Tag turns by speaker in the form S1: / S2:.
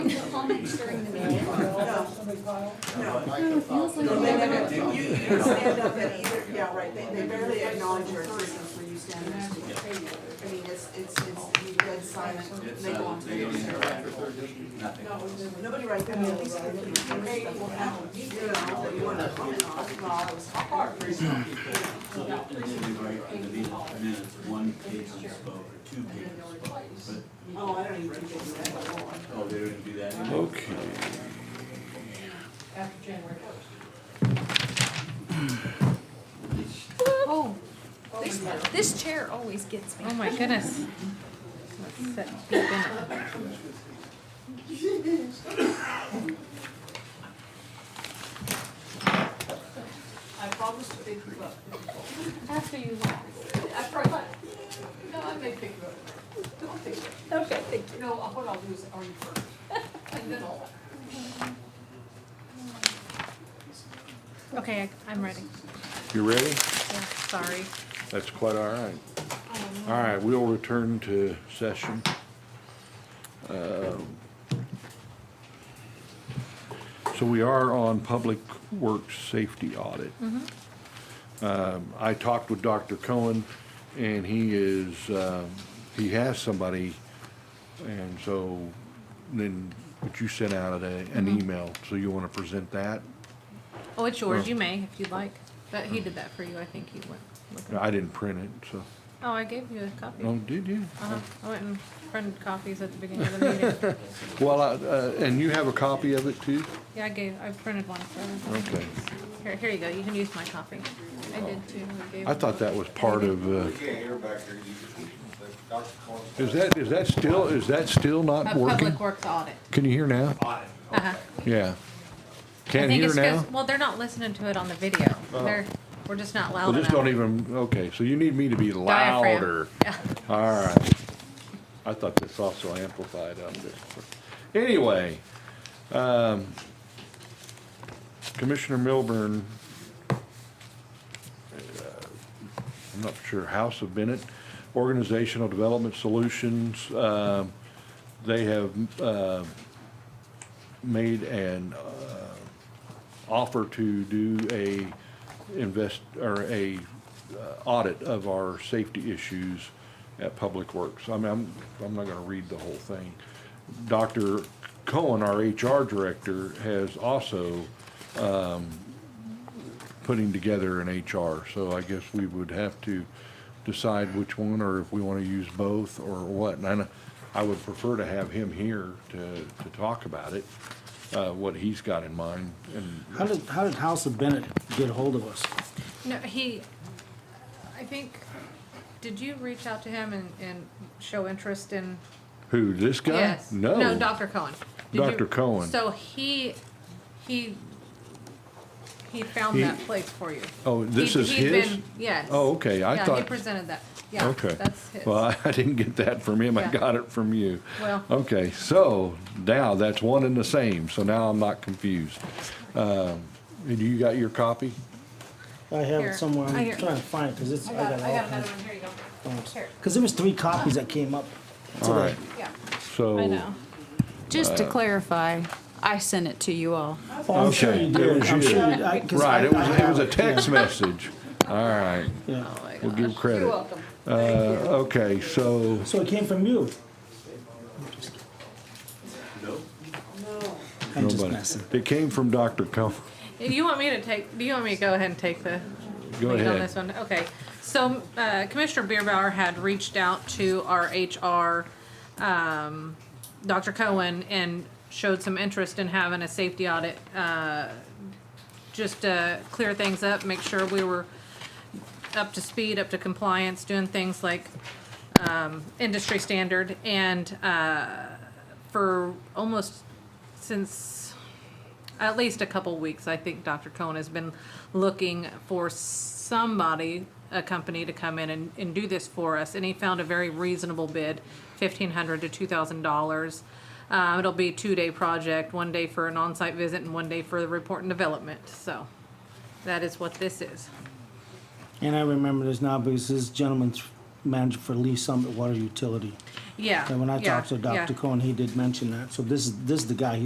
S1: they pile?
S2: No.
S3: It feels like
S2: No,
S3: you
S2: they
S3: never-
S2: never, you, you can stand up at either, yeah, right, they, they barely acknowledge your existence when you stand next to them. I mean, it's, it's, it's, you dead silent, they go on.
S4: It's, uh, they don't interact with their district, nothing.
S2: Nobody right there, at least, you may well have, you know, that you wanna comment on, well, it was hard.
S4: So, and then we write in the min- minutes, one patron spoke, or two patrons spoke,
S2: Oh, I don't even think they do that anymore.
S4: but, oh, they didn't do that anymore.
S5: Okay.
S1: After January first.
S3: Oh, this, this chair always gets me.
S6: Oh my goodness. Let's sit deep in it.
S2: I promised a big book.
S3: After you laugh.
S2: I promise. No, I may pick you up. Don't pick you up.
S3: Okay, thank you.
S2: You know, what I'll do is earn you first, and then I'll.
S6: Okay, I- I'm ready.
S5: You ready?
S6: Yeah, sorry.
S5: That's quite all right. All right, we'll return to session. Um, So we are on Public Works Safety Audit. Um, I talked with Dr. Cohen, and he is, um, he has somebody, and so then, but you sent out a- an email, so you want to present that?
S6: Oh, it's yours.
S5: Oh.
S6: You may, if you'd like. But he did that for you. I think he went looking.
S5: I didn't print it, so,
S6: Oh, I gave you a copy.
S5: oh, did you?
S6: Uh-huh. I went and printed copies at the beginning of the meeting.
S5: Well, I- uh, and you have a copy of it too?
S6: Yeah, I gave, I printed one for everyone.
S5: Okay. Oh.
S6: Here, here you go. You can use my copy. I did too. gave
S5: I
S6: him
S5: thought that was part of, uh,
S7: We can't hear back there, you, the Dr. Collins.
S5: is that, is that still, is that still
S6: A
S5: not working?
S6: public works audit.
S5: Can you hear now?
S6: Uh-huh.
S5: Yeah.
S6: I
S5: Can't
S6: think
S5: hear
S6: it's 'cause-
S5: now? Oh.
S6: Well, they're not listening to it on the video. They're, we're just not loud
S5: Well,
S6: enough.
S5: just don't even, okay, so you need me to be
S6: Diaphragm.
S5: louder.
S6: Yeah.
S5: All right. I thought this also amplified up there. Anyway, um, Commissioner Milburn, uh, I'm not sure, House of Bennett, Organizational Development Solutions, um, they have, uh, made an, uh, offer to do a invest, or a uh, audit of our safety issues at Public Works. I mean, I'm, I'm not gonna read the whole thing. Dr. Cohen, our HR director, has also, um, putting together an HR, so I guess we would have to decide which one, or if we wanna use both, or what. And I, know- I would prefer to have him here to, to talk about it, uh, what he's got in mind, and
S8: How did, how did House of Bennett get hold of us?
S6: No, he, I think, did you reach out to him and, and show interest in?
S5: who, this guy?
S6: Yes.
S5: No.
S6: No, Dr. Cohen. Did you-
S5: Dr. Cohen.
S6: So he, he, he found
S5: He-
S6: that place for you.
S5: Oh, this
S6: He'd-
S5: is
S6: he'd
S5: his?
S6: been- Yes.
S5: Oh, okay, I
S6: Yeah, he
S5: thought-
S6: presented that. Yeah,
S5: Okay.
S6: that's his.
S5: Well, I- I didn't get that from him, I
S6: Yeah.
S5: got it from you.
S6: Well-
S5: Okay, so now that's one and the same, so now I'm not confused. Um, And you got your copy?
S8: I have
S6: Here.
S8: it somewhere, I'm
S6: I hear-
S8: trying to find it, because it's, I
S6: I got,
S8: got
S6: I
S8: it
S6: got
S8: all
S6: another
S8: kinds
S6: one, here you go.
S8: of
S6: Here,
S8: Because there was three copies that came up
S5: All
S8: today.
S5: right,
S6: yeah,
S5: so.
S6: I know.
S3: Just to clarify, I sent it to you all.
S8: Oh, I'm sure
S5: Okay,
S8: you
S5: it
S8: did,
S5: was
S8: I'm
S5: you.
S8: sure, you- I, because I.
S5: Right, it was,
S8: I
S5: it was a
S8: have
S5: text message. All right,
S8: yeah, yeah.
S6: Oh, my
S5: we'll
S6: God.
S5: give credit. Uh, okay, so,
S8: So it came from you?
S4: No,
S8: I'm just
S5: nobody.
S8: messing.
S5: It came from Dr. Cohen.
S6: Do you want me to take, do you want me to go ahead and take the?
S5: Go
S6: lead On
S5: ahead.
S6: this one, okay. So uh, Commissioner Beerbauer had reached out to our HR, um, Dr. Cohen, and showed some interest in having a safety audit, uh, just to clear things up, make sure we were up to speed, up to compliance, doing things like um, industry standard. And uh, for almost, since at least a couple weeks, I think Dr. Cohen has been looking for somebody, a company to come in and, and do this for us. And he found a very reasonable bid, fifteen hundred to two thousand dollars. Uh, it'll be a two-day project, one day for an on-site visit and one day for the report and development, so that is what this is.
S8: And I remember this now, because this gentleman's manager for Lee Summit Water Utility.
S6: Yeah.
S8: And when I
S6: yeah,
S8: talked to
S6: yeah.
S8: Dr. Cohen, he did mention that, so this is, this is the guy